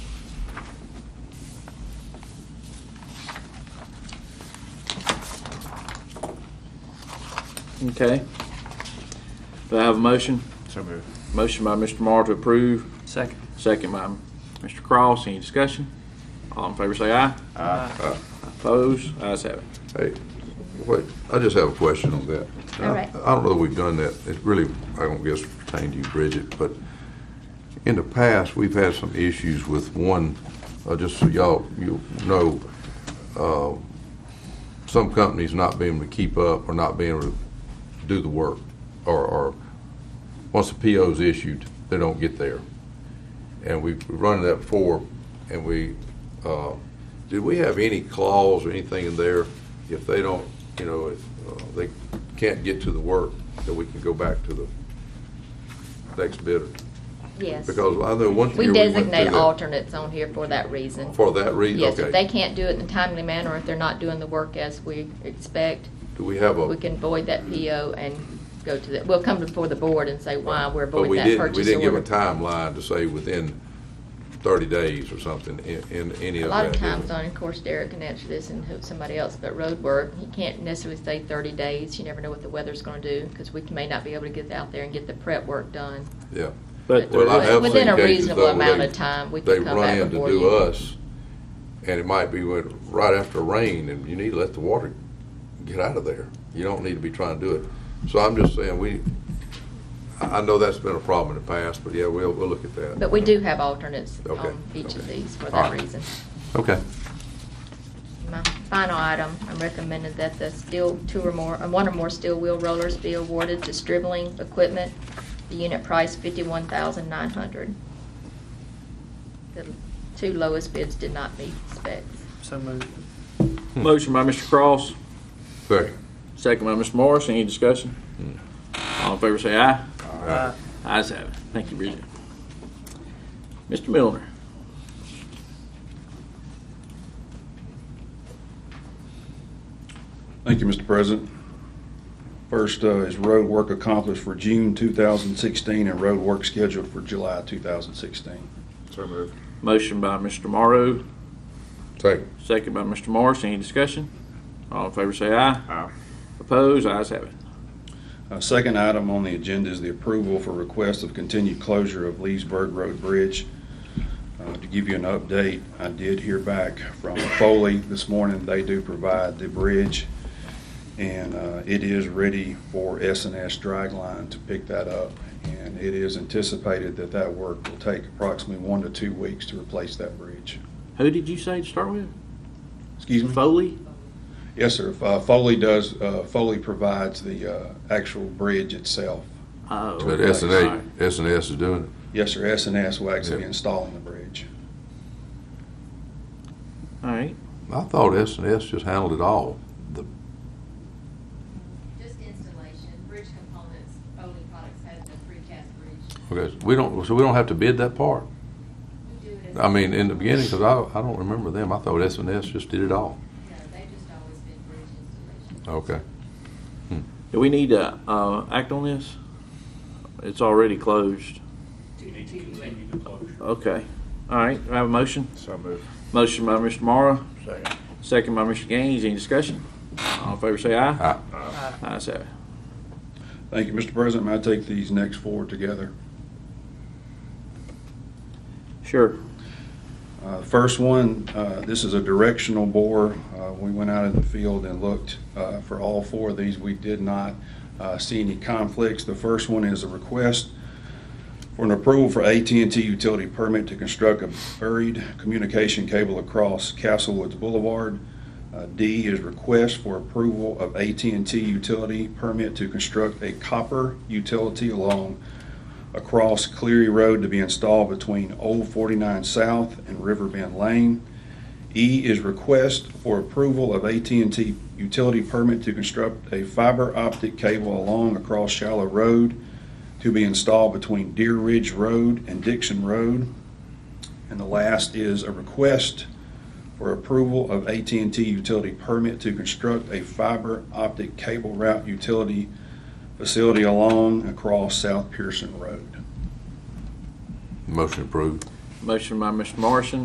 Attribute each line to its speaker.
Speaker 1: Okay. Do I have a motion?
Speaker 2: So moved.
Speaker 1: Motion by Mr. Morrow to approve,
Speaker 3: Second.
Speaker 1: second by Mr. Cross. Any discussion? All in favor say aye.
Speaker 2: Aye.
Speaker 1: Opposed? Ayes have it.
Speaker 4: Hey, wait, I just have a question on that.
Speaker 5: All right.
Speaker 4: I don't know that we've done that. It really, I don't guess pertain to you, Bridget, but in the past, we've had some issues with one, uh, just so y'all, you know, uh, some companies not being able to keep up or not being able to do the work, or, or, once the PO's issued, they don't get there. And we've run that before, and we, uh, did we have any clause or anything in there if they don't, you know, if uh, they can't get to the work, that we can go back to the next bidder?
Speaker 5: Yes.
Speaker 4: Because I know one year we
Speaker 5: We
Speaker 4: went
Speaker 5: designate
Speaker 4: through that.
Speaker 5: alternates on here for that reason.
Speaker 4: For that reason,
Speaker 5: Yes,
Speaker 4: okay.
Speaker 5: if they can't do it in a timely manner, if they're not doing the work as we expect,
Speaker 4: Do we have a?
Speaker 5: we can void that PO and go to the, we'll come before the board and say why we're
Speaker 4: But
Speaker 5: voiding
Speaker 4: we
Speaker 5: that
Speaker 4: didn't, we
Speaker 5: purchase
Speaker 4: didn't give a
Speaker 5: order.
Speaker 4: timeline to say within thirty days or something in, in any
Speaker 5: A
Speaker 4: of that.
Speaker 5: lot of
Speaker 4: did we?
Speaker 5: times on, of course, Derek can answer this and hope somebody else, but road work, you can't necessarily say thirty days. You never know what the weather's gonna do, because we may not be able to get out there and get the prep work done.
Speaker 4: Yeah.
Speaker 1: But
Speaker 4: Well, I have
Speaker 5: Within
Speaker 4: seen
Speaker 5: a
Speaker 4: cases,
Speaker 5: reasonable
Speaker 4: though, where
Speaker 5: amount
Speaker 4: they-
Speaker 5: of time, we can come back
Speaker 4: They run
Speaker 5: before
Speaker 4: in to do
Speaker 5: you.
Speaker 4: us, and it might be when, right after rain, and you need to let the water get out of there. You don't need to be trying to do it. So I'm just saying, we, I, I know that's been a problem in the past, but yeah, we'll, we'll look at that.
Speaker 5: But we do have alternates
Speaker 4: Okay,
Speaker 5: on each of
Speaker 4: okay.
Speaker 5: these for
Speaker 4: All
Speaker 5: that
Speaker 4: right.
Speaker 5: reason.
Speaker 4: Okay.
Speaker 5: My final item, I'm recommending that the steel, two or more, uh, one or more steel wheel rollers be awarded to Stribling Equipment, the unit price fifty-one thousand nine hundred. The two lowest bids did not meet specs.
Speaker 3: So moved.
Speaker 1: Motion by Mr. Cross,
Speaker 4: Second.
Speaker 1: second by Mr. Morris. Any discussion? All in favor say aye.
Speaker 3: Aye.
Speaker 1: Ayes have it. Thank you, Bridget. Mr. Milner.
Speaker 6: Thank you, Mr. President. First uh, is road work accomplished for June 2016 and road work scheduled for July 2016.
Speaker 2: So moved.
Speaker 1: Motion by Mr. Morrow,
Speaker 4: Second.
Speaker 1: second by Mr. Morris. Any discussion? All in favor say aye.
Speaker 2: Aye.
Speaker 1: Opposed? Ayes have it.
Speaker 6: Uh, Second item on the agenda is the approval for request of continued closure of Leesburg Road Bridge. Uh, To give you an update, I did hear back from Foley this morning. They do provide the bridge, and uh, it is ready for s and S Dragline to pick that up. And it is anticipated that that work will take approximately one to two weeks to replace that bridge.
Speaker 1: Who did you say to start with?
Speaker 6: Excuse me?
Speaker 1: Foley?
Speaker 6: Yes, sir. Uh, Foley does, uh, Foley provides the uh, actual bridge itself.
Speaker 1: Oh,
Speaker 4: But
Speaker 1: okay,
Speaker 4: S and
Speaker 1: all
Speaker 4: A,
Speaker 1: right.
Speaker 4: S and S is doing it.
Speaker 6: Yes, sir, S and S will
Speaker 4: Yeah.
Speaker 6: actually be installing the bridge.
Speaker 1: All right.
Speaker 4: I thought S and S just handled it all. The,
Speaker 7: Just installation, bridge components, Foley Products has the precast bridge.
Speaker 4: okay, we don't, so we don't have to bid that part?
Speaker 7: We do it as.
Speaker 4: I mean, in the beginning, because I, I don't remember them. I thought S and S just did it all.
Speaker 7: No, they've just always been bridge installation.
Speaker 4: Okay. Hmm.
Speaker 1: Do we need to uh, act on this? It's already closed. Okay. All right. Do I have a motion?
Speaker 2: So moved.
Speaker 1: Motion by Mr. Morrow,
Speaker 2: Second.
Speaker 1: second by Mr. Gaines. Any discussion? All in favor say aye.
Speaker 4: Aye.
Speaker 1: Ayes have it.
Speaker 6: Thank you, Mr. President. May I take these next four together?
Speaker 1: Sure.
Speaker 6: Uh, First one, uh, this is a directional bore. Uh, We went out in the field and looked uh, for all four of these. We did not uh, see any conflicts. The first one is a request for an approval for at and t utility permit to construct a buried communication cable across Castlewoods Boulevard. Uh, D is request for approval of at and t utility permit to construct a copper utility along across Cleary Road to be installed between Old 49 South and Riverbend Lane. E is request for approval of at and t utility permit to construct a fiber optic cable along across Shallow Road to be installed between Deer Ridge Road and Dixon Road. And the last is a request for approval of at and t utility permit to construct a fiber optic cable route utility facility along across South Pearson Road.
Speaker 4: Motion approved.
Speaker 1: Motion by Mr. Morrison,